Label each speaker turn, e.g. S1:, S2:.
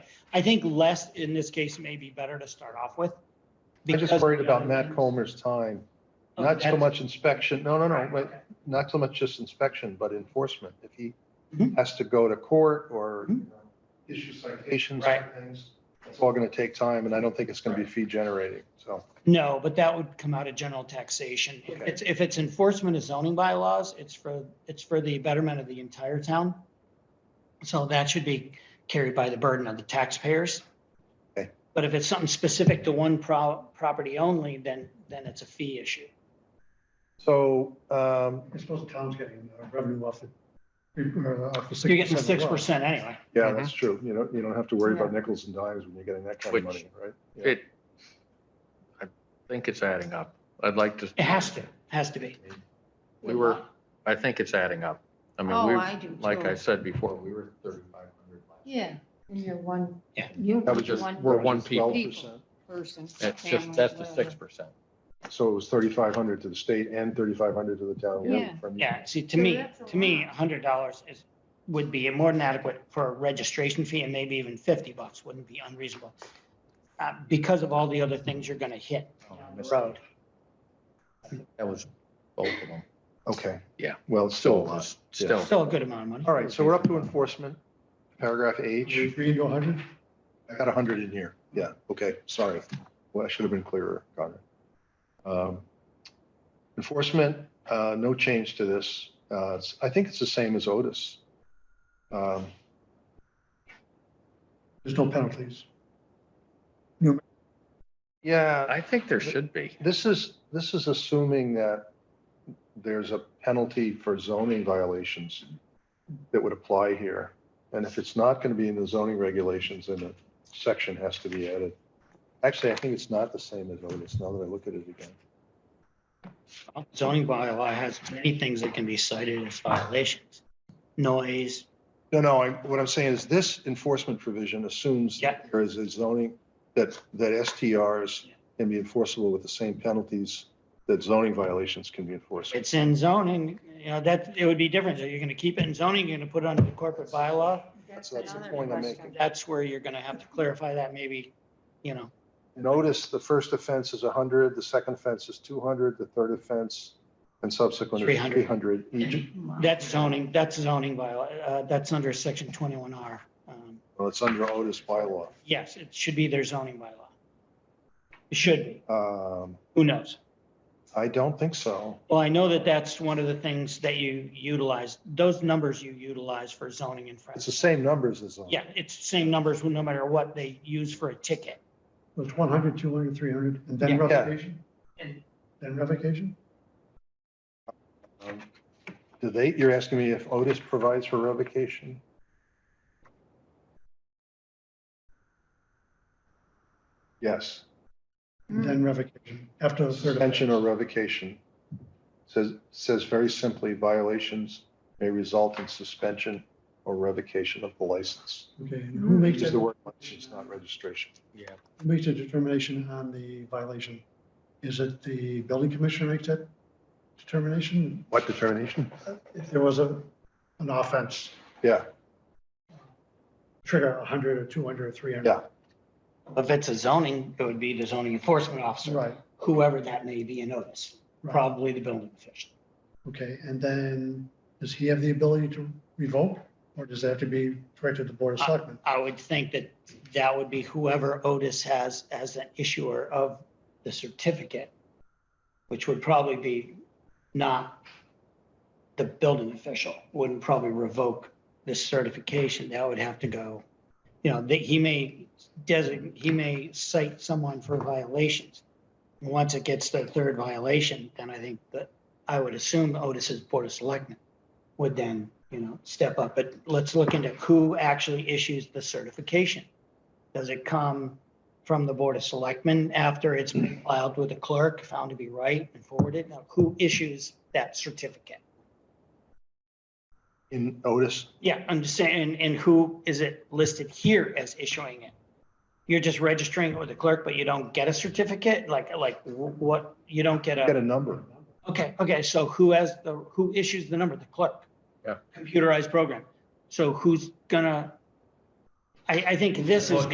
S1: I think less in this case may be better to start off with.
S2: I'm just
S1: because- um,
S2: worried about Matt Comer's time.
S1: Oh,
S2: Not so
S1: that's-
S2: much inspection, no, no, no,
S1: Right,
S2: but not so much just inspection, but enforcement. If he
S1: Mhm.
S2: has to go to court or
S1: Mhm.
S2: you know, issue citations
S1: Right.
S2: for things, it's all going to take time and I don't think it's going to be fee generating, so.
S1: No, but that would come out of general taxation. If
S2: Okay.
S1: it's, if it's enforcement of zoning bylaws, it's for, it's for the betterment of the entire town. So that should be carried by the burden of the taxpayers.
S2: Okay.
S1: But if it's something specific to one pro- property only, then, then it's a fee issue.
S2: So, um,
S3: I suppose the town's getting uh, revenue off the, or off the six percent.
S1: You're getting six percent anyway.
S2: yeah,
S4: Mhm.
S2: that's true. You don't, you don't have to worry about nickels and dimes when you're getting that kind of
S4: Which-
S2: money, right? Yeah.
S4: It, I think it's adding up. I'd like to,
S1: It has to, has to be.
S4: we were, I think it's adding up. I mean,
S5: Oh,
S4: we,
S5: I do
S4: like I
S5: too.
S4: said before, we were thirty-five hundred.
S5: Yeah, you're one.
S1: Yeah.
S5: You
S2: That was just,
S5: one
S2: we're
S4: one
S2: one
S4: people.
S2: percent.
S5: person.
S4: That's
S5: family,
S4: just, that's the
S5: whatever.
S4: six percent.
S2: So it was thirty-five hundred to the state and thirty-five hundred to the town.
S5: Yeah.
S2: From-
S1: Yeah, see, to
S5: So
S1: me,
S5: that's a
S1: to me,
S5: lot.
S1: hundred dollars is, would be more than adequate for a registration fee and maybe even fifty bucks wouldn't be unreasonable. Uh, because of all the other things you're gonna hit down the road.
S4: That was both of them.
S2: Okay.
S4: Yeah.
S2: Well, it's still a lot.
S4: It's Still,
S1: Still a good amount of money.
S2: All right, so we're up to enforcement, paragraph H.
S3: Three to a hundred?
S2: I got 100 in here. Yeah, okay, sorry. Well, I should have been clearer, Conrad. Um, Enforcement, uh, no change to this. Uh, it's- I think it's the same as Otis. Um,
S3: There's no penalties.
S2: Yeah,
S4: I think there should be.
S2: this is, this is assuming that there's a penalty for zoning violations that would apply here. And if it's not going to be in the zoning regulations, then a section has to be added. Actually, I think it's not the same as Otis, now that I look at it again.
S1: Zoning bylaw has many things that can be cited as violations. Noise,
S2: No, no, I- what I'm saying is this enforcement provision assumes
S1: Yeah.
S2: there is a zoning, that, that STRs
S1: Yeah.
S2: can be enforceable with the same penalties that zoning violations can be enforced.
S1: it's in zoning, you know, that, it would be different. Are you gonna keep it in zoning? You're gonna put it under the corporate bylaw?
S2: That's- that's the
S5: another
S2: point I'm
S5: question.
S2: making.
S1: That's where you're gonna have to clarify that maybe, you know,
S2: Notice the first offense is 100, the second offense is 200, the third offense and subsequent is
S1: 300.
S2: 300 each.
S5: Wow.
S1: that's zoning, that's zoning bylaw, uh, that's under section twenty-one R. Um,
S2: Well, it's under Otis bylaw.
S1: Yes, it should be their zoning bylaw. It should be.
S2: Um,
S1: Who knows?
S2: I don't think so.
S1: Well, I know that that's one of the things that you utilize, those numbers you utilize for zoning
S2: It's the
S1: infractions.
S2: same numbers as um, zoning.
S1: Yeah, it's the same numbers, no matter what they use for a ticket.
S3: It's one hundred, two hundred, three hundred, and then
S1: Yeah.
S2: Yeah.
S3: revocation?
S1: And-
S3: Then revocation?
S2: Um, Do they, you're asking me if Otis provides for revocation? Yes,
S3: And Then revocation, after the third.
S2: suspension or revocation. Says, says very simply, violations may result in suspension or revocation of the license.
S3: Okay, and who makes
S2: Use
S3: that,
S2: the
S3: who
S2: word license, not registration.
S4: Yeah.
S3: makes the determination on the violation? Is it the building commissioner makes that determination?
S2: What determination?
S3: If there was a, an offense,
S2: Yeah,
S3: trigger a hundred or two hundred or three hundred?
S2: Yeah.
S1: If it's a zoning, it would be the zoning enforcement officer,
S3: Right,
S1: whoever that may be in notice,
S3: right.
S1: probably the building official.
S3: Okay, and then does he have the ability to revoke? Or does that have to be directed to the Board of Selectmen?
S1: I would think that that would be whoever Otis has as an issuer of the certificate, which would probably be not the building official, wouldn't probably revoke this certification. That would have to go, you know, that he may designate, he may cite someone for violations. And Once it gets to the third violation, then I think that, I would assume Otis's Board of Selectmen would then, you know, step up. But let's look into who actually issues the certification. Does it come from the Board of Selectmen after it's been filed with the clerk, found to be right and forwarded? Now, who issues that certificate?
S2: in Otis,
S1: Yeah, I'm just saying, and who is it listed here as issuing it? You're just registering it with the clerk, but you don't get a certificate? Like, like wh- what, you don't get
S2: get
S1: a,
S2: a number.
S1: okay, okay, so who has the, who issues the number? The clerk?
S4: Yeah.
S1: Computerized program. So who's gonna, I, I think this is